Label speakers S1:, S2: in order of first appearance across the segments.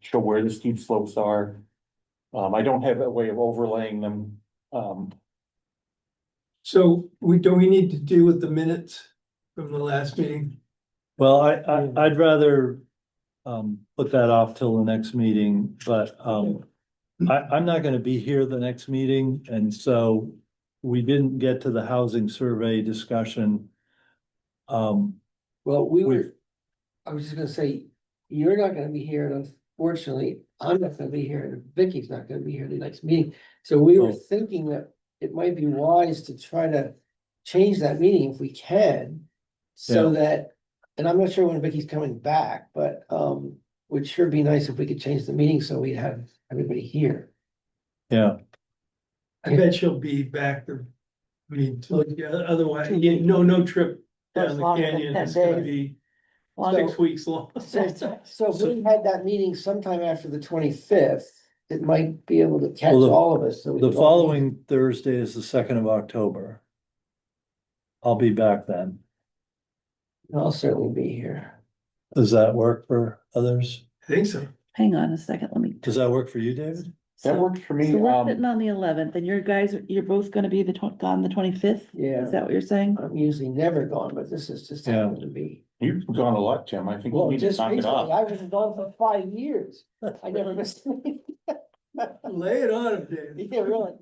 S1: show where the steep slopes are. Um, I don't have a way of overlaying them, um,
S2: So we, do we need to deal with the minutes from the last meeting?
S3: Well, I, I, I'd rather, um, put that off till the next meeting, but, um, I, I'm not gonna be here the next meeting, and so we didn't get to the housing survey discussion. Um,
S4: Well, we
S3: We-
S4: were, I was just gonna say, you're not gonna be here, and unfortunately, I'm not gonna be here, and Vicky's not gonna be here the next meeting. So we were
S3: Oh.
S4: thinking that it might be wise to try to change that meeting if we can. So that, and I'm not sure when Vicky's coming back, but um, would sure be nice if we could change the meeting so we'd have everybody here.
S3: yeah,
S2: I bet she'll be back the, I mean, till- yeah, otherwise, yeah, no, no trip down
S5: That's
S2: the
S5: longer than
S2: canyon
S5: 10
S2: is gonna
S5: days.
S2: be
S5: Well,
S2: six weeks long.
S5: so-
S4: So if we had that meeting sometime after the twenty-fifth, it might be able to catch
S3: Well, the-
S4: all of us. so we
S3: the
S4: don't-
S3: following Thursday is the second of October. I'll be back then.
S4: I'll certainly be here.
S3: Does that work for others?
S2: I think so.
S5: Hang on a second, let me.
S3: Does that work for you, David?
S5: So-
S1: that works for me,
S5: So we're
S1: um,
S5: sitting on the eleventh and your guys, you're both gonna be the tw- on the twenty-fifth?
S4: Yeah. Uh,
S5: Is that what you're saying?
S4: I'm usually never gone, but this is just
S3: Yeah.
S4: happened to be.
S1: you've gone a lot, Jim, I think we
S4: Well,
S1: need to
S4: just
S1: knock
S4: recently,
S1: it off.
S4: I was gone for five years. I never missed. a meeting.
S2: Lay it on him, David.
S4: Yeah, really.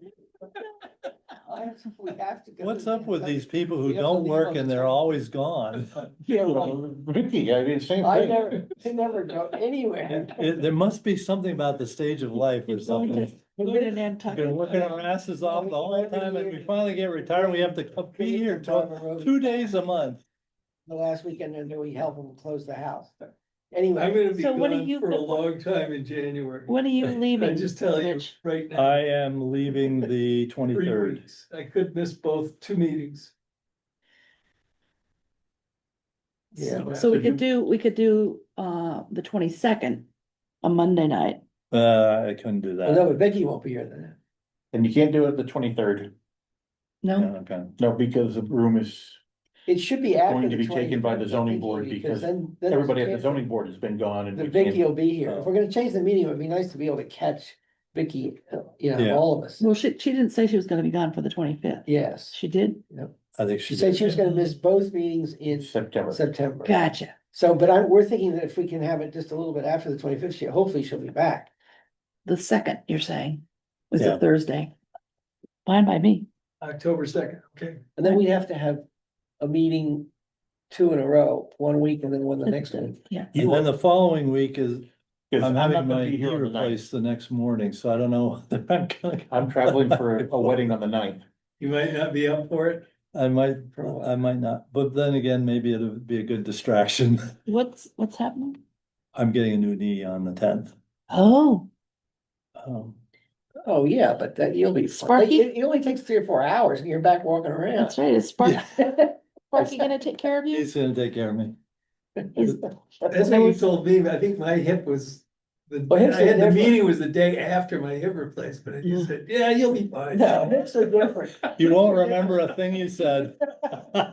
S4: I- we have to go
S3: What's
S4: to
S3: up with
S4: the-
S3: these people
S4: We
S3: who
S4: have to
S3: don't
S4: leave
S3: work
S4: on
S3: and
S4: the
S3: they're
S4: twenty-
S3: always gone?
S4: Yeah, like,
S1: Vicky, I did the same
S4: I
S1: thing,
S4: never, I never go anywhere.
S3: It- it- there must be something about the stage of life or something.
S5: We're going to
S3: We've Been working our asses off the whole time and we finally get retired, we have to come be here tw- two
S4: The
S3: days a month.
S4: last weekend, and then we help them close the house, but
S2: I'm
S4: anyway,
S2: gonna be
S5: So what do
S2: gone
S5: you-
S2: for a long time in January.
S5: When are you leaving?
S2: I just tell you
S5: Rich?
S2: right now,
S3: I am leaving the
S2: three
S3: twenty-third.
S2: weeks. I could miss both, two meetings.
S4: Yeah,
S5: So-
S2: but-
S5: So we could do, we could do, uh, the twenty-second, a Monday night.
S3: Uh, I couldn't do
S4: well, no,
S3: that.
S4: but Vicky won't be here then.
S1: and you can't do it the twenty-third,
S3: Yeah,
S5: No,
S3: okay.
S1: no, because the room is,
S4: It should be after.
S1: Going to
S4: the
S1: be taken by the
S4: 23rd,
S1: zoning board because
S4: then- then
S1: everybody at the
S4: can't-
S1: zoning board has been gone and.
S4: The
S1: we can't-
S4: Vicky will be here.
S3: Oh.
S4: If we're gonna change the meeting, it would be nice to be able to catch Vicky, uh, you
S3: Yeah.
S4: know, all of us.
S5: well, she, she didn't say she was gonna be gone for the twenty-fifth.
S4: Yes,
S5: She did?
S3: I think
S4: she said she was gonna miss both meetings in
S1: September.
S4: September.
S5: Gotcha.
S4: So, but I, we're thinking that if we can have it just a little bit after the twenty fifth, she, hopefully she'll be back.
S5: The second, you're saying, was
S3: Yeah.
S5: a Thursday. Fine by me.
S2: October second, okay.
S4: And then we'd have to have a meeting two in a row, one week and then one the next one.
S5: Yeah.
S3: And then the following week is,
S1: 'Cause
S3: I'm
S1: not
S3: having
S1: gonna
S3: my
S1: be
S3: knee
S1: here on the ninth.
S3: replaced the next morning, so I don't know. whether I'm gonna-
S1: I'm traveling for a wedding on the ninth.
S2: You might not be up for it.
S3: I might,
S4: For a while.
S3: I might not, but then again, maybe it'll be a good distraction.
S5: What's, what's happening?
S3: I'm getting a new knee on the tenth. Um,
S5: Oh,
S4: Oh, yeah, but that, you'll be. fine. Like,
S5: Sparky?
S4: It, it only takes three or four hours and you're back walking around.
S5: that's right. Is Sparky, Sparky
S4: Sparky
S5: gonna take care of you?
S3: He's gonna take care of me.
S5: He's-
S2: That's what you told me, but I think my hip was, the,
S4: Well, Oh, hips
S2: I had
S4: are
S2: the
S4: different.
S2: meeting was the day after my hip replacement, and you
S5: Mm.
S2: said, yeah, you'll be fine.
S4: No, hips are different.
S3: You won't remember a thing you said. Oh,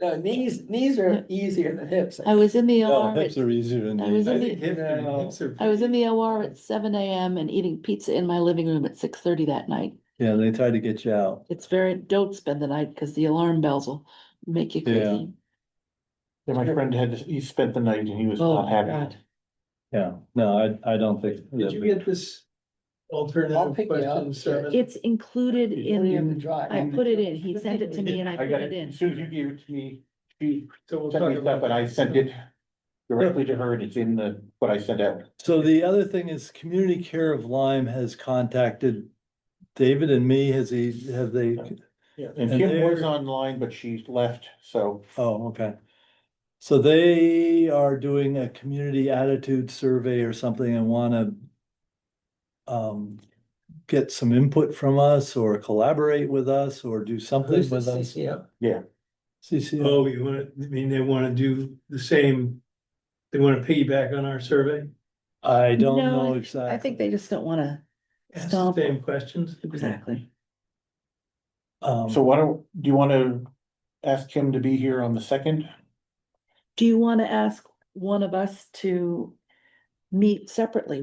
S4: No, knees, knees are easier than hips.
S5: I was in the
S3: No,
S5: OR,
S3: hips
S5: at-
S3: are easier than
S5: I was
S3: these.
S2: I
S5: in
S2: think hip-
S4: No.
S2: hips are-
S5: I was in the OR at seven AM and eating pizza in my living room at six thirty that night.
S3: Yeah, they tried to get you out.
S5: It's very, don't spend the night because the alarm bells will make you
S3: Yeah.
S5: crazy.
S1: Yeah, my friend had, he spent the night and he was
S5: Oh,
S1: not happy.
S5: God.
S3: Yeah, no, I, I don't think.
S2: Did you get this
S4: I'll pick
S2: alternative
S4: it up,
S2: question seven?
S5: It's included
S4: You don't even
S5: in,
S4: drive.
S5: I put it in, he sent it to me and I
S1: I
S5: put
S1: got
S5: it
S1: it,
S5: in.
S1: as soon as you gave it to me, she
S2: So we'll
S1: sent
S2: talk
S1: me
S2: about
S1: stuff and I sent it directly to her and it's in the, what I sent out.
S3: So the other thing is Community Care of Lyme has contacted David and me. Has he, have they?
S1: And
S3: And
S1: Kim was
S3: there-
S1: online, but she left, so
S3: Oh, okay. So they are doing a community attitude survey or something and wanna um, get some input from us or collaborate with us or do something
S4: Who's
S3: with
S4: the
S3: us.
S4: CCO?
S3: CCO,
S2: Oh, you wanna, I mean, they wanna do the same, they wanna piggyback on our survey?
S3: I don't
S5: No,
S3: know
S5: I think they
S3: exactly.
S5: just don't wanna,
S2: Ask the
S5: Stop.
S2: same questions?
S5: exactly.
S3: Um,
S1: So why don't, do you wanna ask him to be here on the second?
S5: Do you wanna ask one of us to meet separately